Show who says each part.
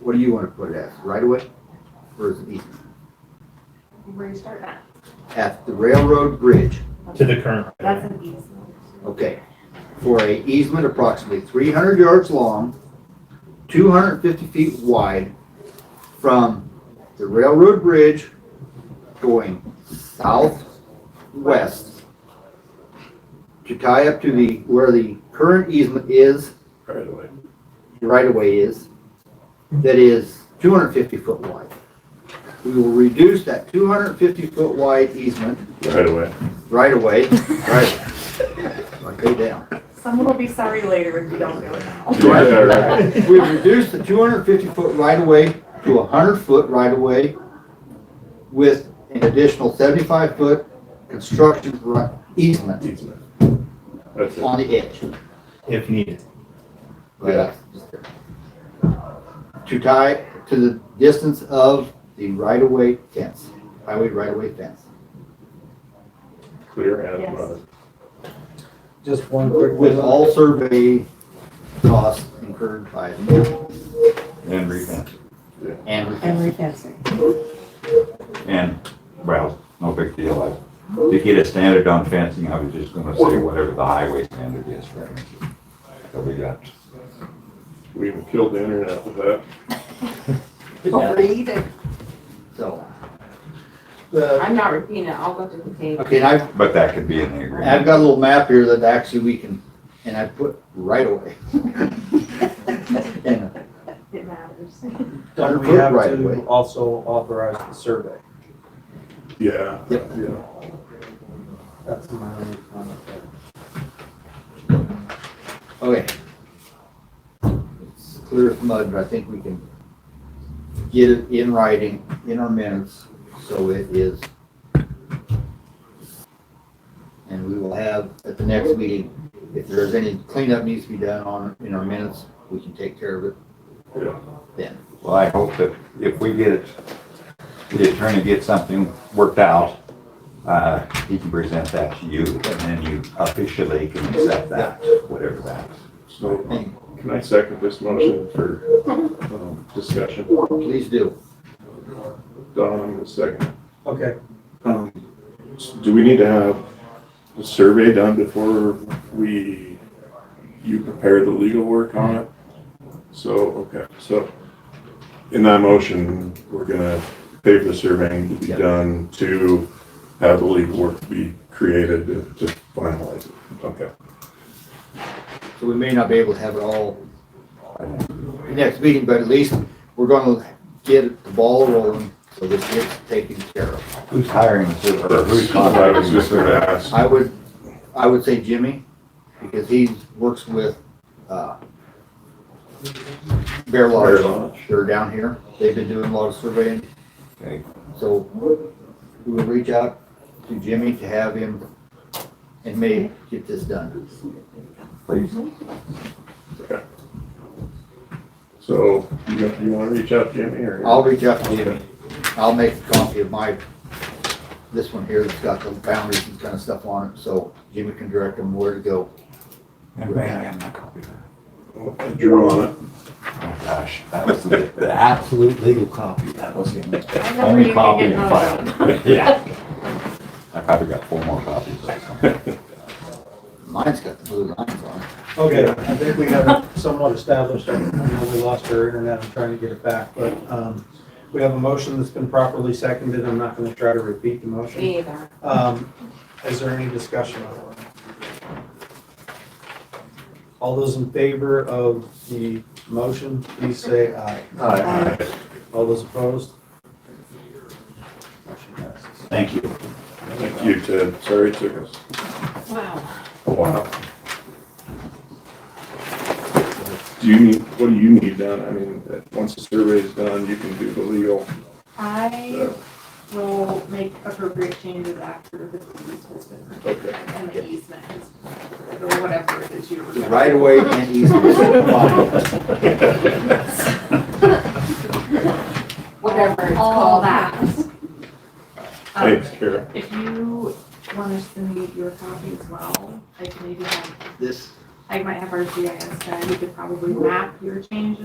Speaker 1: What do you want to put it as, right away, Or is it easement?
Speaker 2: Where you start at.
Speaker 1: At the railroad bridge,
Speaker 3: to the current.
Speaker 2: That's an easement.
Speaker 1: okay, for a easement approximately three hundred yards long, two hundred and fifty feet wide from the railroad bridge going southwest to tie up to the, where the current easement is
Speaker 4: right away.
Speaker 1: right of way is, that is two hundred fifty foot wide. We will reduce that two hundred fifty foot wide easement
Speaker 4: Right away.
Speaker 1: right of way, right, like they down.
Speaker 2: Someone will be sorry later if you don't do it now.
Speaker 4: Yeah, right.
Speaker 1: We reduce the two hundred fifty foot right of way to hundred foot right of way with an additional seventy-five foot construction ri- easement
Speaker 4: Easement. That's it.
Speaker 1: on the edge.
Speaker 3: If needed.
Speaker 1: Right. To tie to the distance of the right-of-way fence, highway right-of-way fence.
Speaker 4: Clear as
Speaker 2: Yes.
Speaker 4: mud.
Speaker 5: Just one quick.
Speaker 1: With all survey costs incurred by
Speaker 6: And refence,
Speaker 1: and
Speaker 7: and refancing.
Speaker 6: and, well, no big deal, I, to get a standard on fencing, I was just gonna say whatever the highway standard is for fencing. So we got,
Speaker 4: We even killed the internet with that.
Speaker 2: Don't read it.
Speaker 1: so.
Speaker 5: The,
Speaker 2: I'm not repeating it, I'll look at the tape.
Speaker 1: Okay, and I've,
Speaker 6: but that could be in the
Speaker 1: and I've
Speaker 6: agreement.
Speaker 1: got a little map here that actually we can, and I put right-of-way. And
Speaker 2: It matters.
Speaker 5: do
Speaker 1: Hundred
Speaker 5: we
Speaker 1: foot
Speaker 5: have
Speaker 1: right of way.
Speaker 5: to also authorize the survey?
Speaker 4: Yeah.
Speaker 1: Yep.
Speaker 4: Yeah.
Speaker 5: That's my only comment there.
Speaker 1: Okay. It's clear as mud, but I think we can get it in writing, in our minutes, so it is. And we will have at the next meeting, if there's any cleanup needs to be done on, in our minutes, we can take care of it.
Speaker 6: Well, I hope that if we get it, the attorney gets something worked out, uh, he can present that to you, and then you officially can accept that, whatever that.
Speaker 4: So
Speaker 1: And
Speaker 4: can I second this motion for um, discussion?
Speaker 1: please do.
Speaker 4: Don, I'm gonna second. it.
Speaker 5: Okay,
Speaker 4: Um, s- Do we need to have a survey done before we, you prepare the legal work on it? So, okay, so in that motion, we're gonna pay for the surveying to be
Speaker 1: Yeah.
Speaker 4: done to have the legal work be created to to finalize it. Okay.
Speaker 1: So we may not be able to have it all the next meeting, but at least we're gonna get the ball rolling, so this gets taken care of.
Speaker 6: Who's hiring the surveyor, or who's
Speaker 4: I was
Speaker 6: contracting the
Speaker 4: just gonna
Speaker 6: surveyor?
Speaker 4: ask,
Speaker 1: I would, I would say Jimmy, because he works with, uh, Bear
Speaker 4: Bear
Speaker 1: Lodge.
Speaker 4: Lodge.
Speaker 1: They're down here. They've been doing a lot of surveying,
Speaker 6: Okay,
Speaker 1: so we will reach out to Jimmy to have him and me get this done.
Speaker 6: Please,
Speaker 4: so you got- you wanna reach out to Jimmy or?
Speaker 1: I'll reach out to Jimmy. I'll make a copy of my, this one here that's got the boundaries and kind of stuff on it, so Jimmy can direct him where to go.
Speaker 6: and may I have my copy of that?
Speaker 4: Drew on it.
Speaker 6: Oh gosh, that was the, the absolute legal copy. That was
Speaker 2: I
Speaker 6: the
Speaker 2: know you
Speaker 6: only
Speaker 2: can
Speaker 6: copy
Speaker 2: get
Speaker 6: in
Speaker 2: another
Speaker 6: file. Yeah. I probably got four more copies. or something.
Speaker 1: Mine's got the blue lines on it.
Speaker 5: okay, I think we have it somewhat established, I know we lost our internet, I'm trying to get it back, but, um, we have a motion that's been properly seconded, I'm not gonna try to repeat the motion.
Speaker 2: Me either.
Speaker 5: Um, is there any discussion on it? All those in favor of the motion, please say aye.
Speaker 4: Aye.
Speaker 5: All those opposed?
Speaker 6: Thank you.
Speaker 4: Thank you, Ted. Sorry it took us
Speaker 2: Wow.
Speaker 4: a while. Do you need, what do you need done? I mean, that- once the survey is done, you can do the legal.
Speaker 2: I
Speaker 4: uh,
Speaker 2: will make appropriate changes after the easement
Speaker 4: Okay.
Speaker 2: and the easement, or whatever it is you were. gonna-
Speaker 1: Right away and easement.
Speaker 2: Whatever it's
Speaker 7: All
Speaker 2: called.
Speaker 7: that.
Speaker 2: Um,
Speaker 4: Thanks, Kara.
Speaker 2: If you want us to need your copy as well, I can maybe have,
Speaker 1: This
Speaker 2: I might have our GIS guy, we could probably map your changes